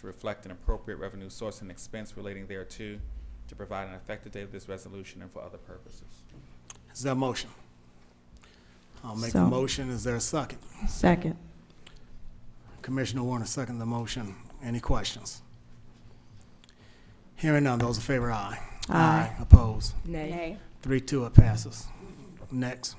to reflect an appropriate revenue source and expense relating thereto, to provide an effective date of this resolution and for other purposes. Is there a motion? I'll make a So- motion. Is there a second? Second. Commissioner Warner, second the motion. Any questions? Hearing none, those in favor, aye. Aye. Opposed? Nay. Three, two, it passes. Next.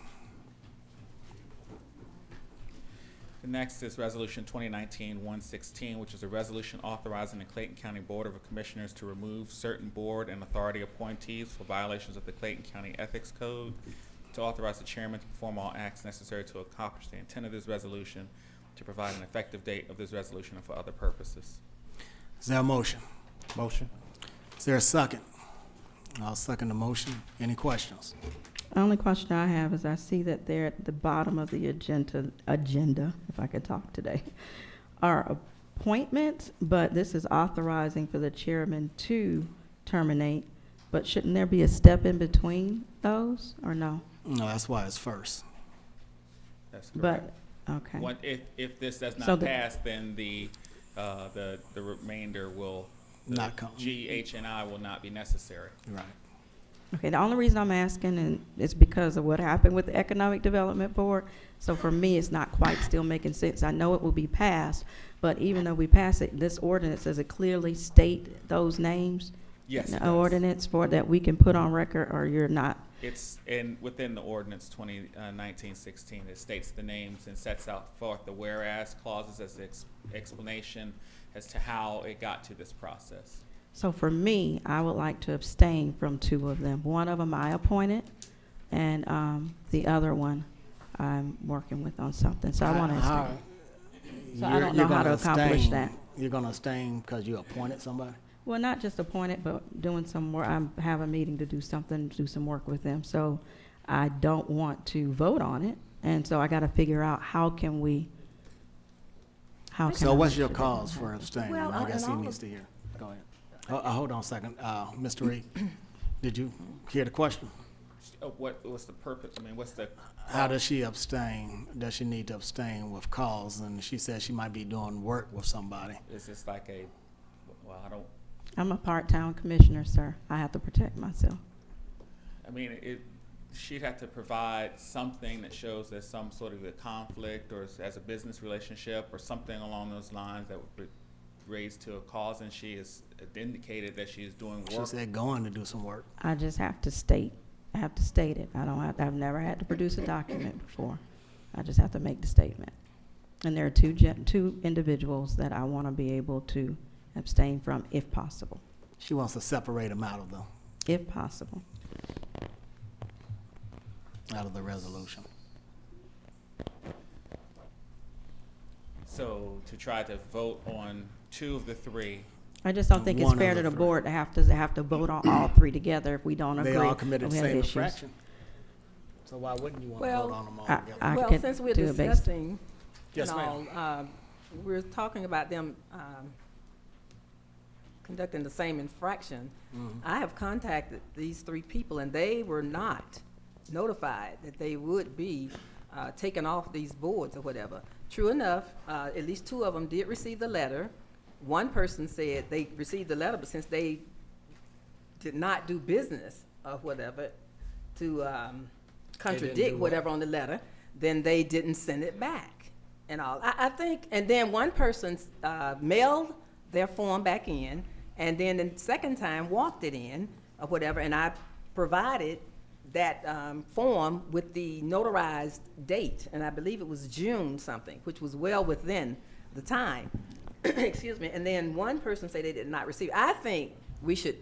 The next is Resolution 2019-116, which is a resolution authorizing the Clayton County Board of Commissioners to remove certain board and authority appointees for violations of the Clayton County Ethics Code, to authorize the chairman to perform all acts necessary to accomplish the intent of this resolution, to provide an effective date of this resolution and for other purposes. Is there a motion? Motion. Is there a second? I'll second the motion. Any questions? Only question I have is I see that there at the bottom of the agenda, agenda, if I could talk today, are appointments, but this is authorizing for the chairman to terminate. But shouldn't there be a step in between those, or no? No, that's why it's first. That's correct. But, okay. One- If, if this does So not the- pass, then the, uh, the the remainder will. the Not come. G, H, and I will not be necessary. Right. Okay, the only reason I'm asking and is because of what happened with the Economic Development Board. So for me, it's not quite still making sense. I know it will be passed, but even though we pass it, this ordinance, does it clearly state those names? Yes. it The does. ordinance for, that we can put on record or you're not? It's in, within the ordinance twenty, uh, nineteen sixteen, it states the names and sets out forth the whereas clauses as the ex- explanation as to how it got to this process. So for me, I would like to abstain from two of them. One of them I appointed, and um, the other one I'm working with on something, so I want to How- abstain. So I you're- don't know you're how to gonna accomplish abstain- that. You're gonna abstain because you appointed somebody? Well, not just appointed, but doing some work. I have a meeting to do something, do some work with them. So I don't want to vote on it. And so I got to figure out how can we, how can So I what's make your sure that cause doesn't for happen? abstaining? Well, I uh, guess and he all needs of- to hear. Go ahead. Uh, uh, hold on a second. Uh, Mr. Reed, did you hear the question? Uh, What, what's the purpose, I mean, what's the, How does she abstain? Does she need to abstain with cause? And she said she might be doing work with somebody. is this like a, well, I don't, I'm a part-time commissioner, sir. I have to protect myself. I mean, it, she'd have to provide something that shows there's some sort of a conflict or as- as a business relationship or something along those lines that would be raised to a cause, and she has indicated that she is doing She work. said going to do some work. I just have to state, I have to state it. I don't have, I've never had to produce a document before. I just have to make the statement. And there are two gen, two individuals that I want to be able to abstain from if possible, She wants to separate them out of the, if possible. out of the resolution. So to try to vote on two of the three, I just don't think it's One of fair the to the three. board to have to, have to vote on all three together if we don't agree. They all and committed the Oh, we have same issues. infraction. So why wouldn't you want to Well, vote on them all I- together? I Well, could since we're do it based- discussing Yes, and all, ma'am. um, we're talking about them um, conducting the same infraction. Mhm. I have contacted these three people, and they were not notified that they would be uh, taken off these boards or whatever. True enough, uh, at least two of them did receive the letter. One person said they received the letter, but since they did not do business or whatever to um, do contradict what? whatever on the letter, then they didn't send it back and all. I, I think, and then one person uh, mailed their form back in, and then the second time walked it in or whatever, and I provided that um, form with the notarized date, and I believe it was June something, which was well within the time. Excuse me. And then one person said they did not receive. I think we should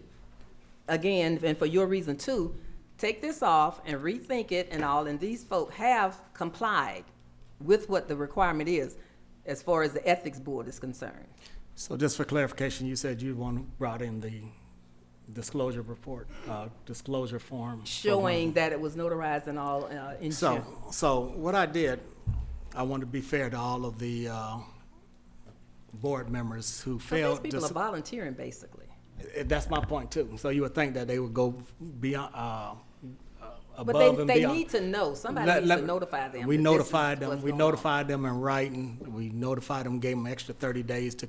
again, and for your reason too, take this off and rethink it and all, and these folk have complied with what the requirement is as far as the ethics board is concerned. So just for clarification, you said you one who brought in the disclosure report, uh, disclosure form. for Showing one. that it was notarized and all, uh, Uh-huh. in So, June. so what I did, I want to be fair to all of the, uh, board members who But these failed. people dis- are volunteering, basically. Eh, That's my point too. So you would think that they would go beyond, uh, uh, above But they, and beyond. they need to know, somebody Let- needs let- to notify them. We that this is notified what's them, we going on. notified them in writing, we notified them, gave them extra thirty days to